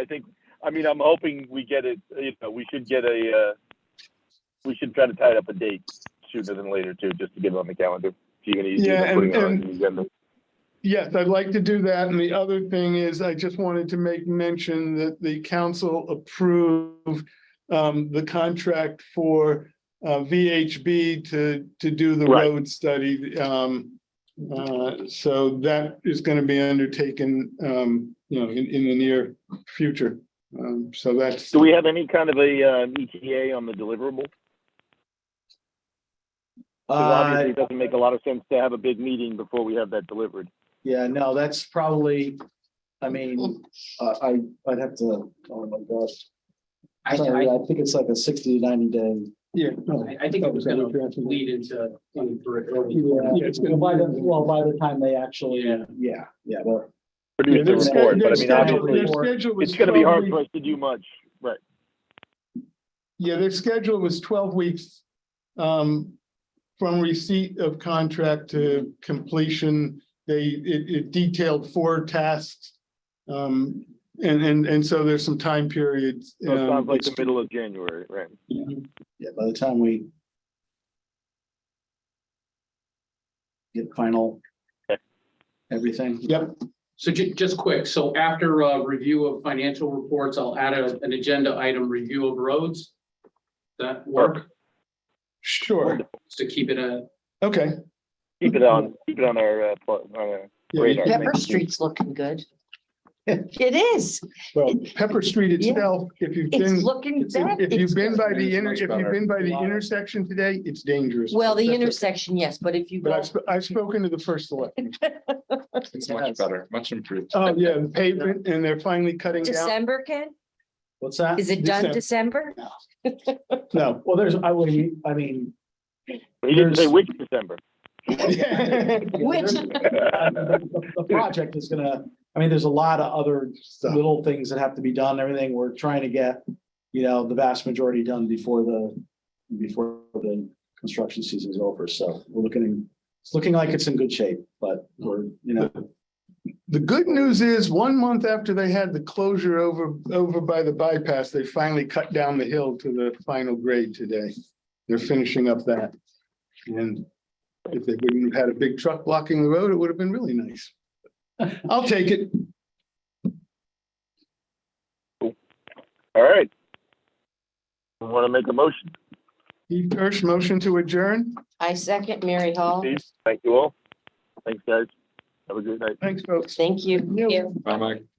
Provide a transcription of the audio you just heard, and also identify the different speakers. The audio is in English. Speaker 1: I think, I mean, I'm hoping we get it, you know, we should get a, uh, we should try to tie up a date sooner than later too, just to get it on the calendar. It's even easier
Speaker 2: Yeah,
Speaker 1: than
Speaker 2: and-
Speaker 1: putting it on
Speaker 2: and-
Speaker 1: the agenda.
Speaker 2: Yes, I'd like to do that. And the other thing is I just wanted to make mention that the council approved um, the contract for uh, VHB to, to do the
Speaker 1: Right.
Speaker 2: road study. Um, uh, So that is going to be undertaken, um, you know, in, in the near future. Um, So that's,
Speaker 1: Do we have any kind of a, uh, ETA on the deliverable? Because
Speaker 3: Uh,
Speaker 1: obviously it doesn't make a lot of sense to have a big meeting before we have that delivered.
Speaker 3: yeah, no, that's probably, I mean, I, I, I'd have to, oh my gosh.
Speaker 4: I,
Speaker 3: Sorry,
Speaker 4: I,
Speaker 3: I think it's like a sixty, ninety day.
Speaker 2: yeah. no,
Speaker 4: I- I think it was gonna
Speaker 2: Yeah,
Speaker 4: lead into twenty-three. early.
Speaker 2: Yeah, it's gonna-
Speaker 3: By the, well, by the time they actually,
Speaker 4: Yeah.
Speaker 3: yeah, yeah, but
Speaker 1: Produce the
Speaker 2: their
Speaker 3: they're
Speaker 2: sched-
Speaker 1: report,
Speaker 2: their
Speaker 1: but I mean,
Speaker 2: schedule-
Speaker 1: obviously,
Speaker 2: their schedule was
Speaker 1: it's gonna be
Speaker 2: 12
Speaker 1: hard
Speaker 2: weeks.
Speaker 1: for us to do much, right?
Speaker 2: Yeah, their schedule was twelve weeks um, from receipt of contract to completion. They, it, it detailed four tasks. Um, and, and, and so there's some time periods.
Speaker 1: So it
Speaker 2: um,
Speaker 1: sounds like the middle of January, right?
Speaker 3: yeah, by the time we. Get final.
Speaker 1: Okay.
Speaker 3: Everything.
Speaker 2: Yep,
Speaker 4: So ju- just quick, so after uh review of financial reports, I'll add a, an agenda item, review of roads. That work,
Speaker 2: sure.
Speaker 4: Just to keep it a,
Speaker 2: Okay.
Speaker 1: Keep it on, keep it on our, uh, pl- on our
Speaker 2: Yeah,
Speaker 1: Radar.
Speaker 2: yeah.
Speaker 5: Pepper Street's looking good. It is.
Speaker 2: Well, Pepper Street itself, if you've
Speaker 5: It's
Speaker 2: been,
Speaker 5: looking bad.
Speaker 2: if you've
Speaker 5: It's-
Speaker 2: been by the,
Speaker 3: It's
Speaker 2: inter,
Speaker 3: much
Speaker 2: if you've
Speaker 3: better.
Speaker 2: been by the
Speaker 3: Wow.
Speaker 2: intersection today, it's dangerous.
Speaker 5: Well, the
Speaker 2: That's it.
Speaker 5: intersection, yes, but if you
Speaker 2: But
Speaker 5: go,
Speaker 2: I've, sp- I've spoken to the first selectman.
Speaker 3: It's
Speaker 6: Much better, much improved.
Speaker 2: Oh, yeah, the pavement and they're finally cutting down.
Speaker 5: December, Ken,
Speaker 3: What's that?
Speaker 5: is it done December?
Speaker 2: No.
Speaker 3: Well, there's, I would, I mean.
Speaker 1: He didn't say
Speaker 3: There's-
Speaker 1: which December.
Speaker 5: Which,
Speaker 3: Uh, The the- the project is gonna, I mean, there's a lot of other little things that have to be done, everything. We're trying to get, you know, the vast majority done before the, before the construction season is over. So we're looking, it's looking like it's in good shape, but we're, you know,
Speaker 2: The good news is, one month after they had the closure over, over by the bypass, they finally cut down the hill to the final grade today. They're finishing up that. And if they wouldn't have had a big truck blocking the road, it would have been really nice. I'll take it.
Speaker 1: All right. Want to make a motion?
Speaker 2: Steve Kirsch, motion to adjourn.
Speaker 5: I second Mary Hall.
Speaker 1: Steve, thank you all. Thanks, guys. Have a good night.
Speaker 2: Thanks, folks.
Speaker 5: Thank you.
Speaker 2: Yeah.
Speaker 6: Bye, Mike.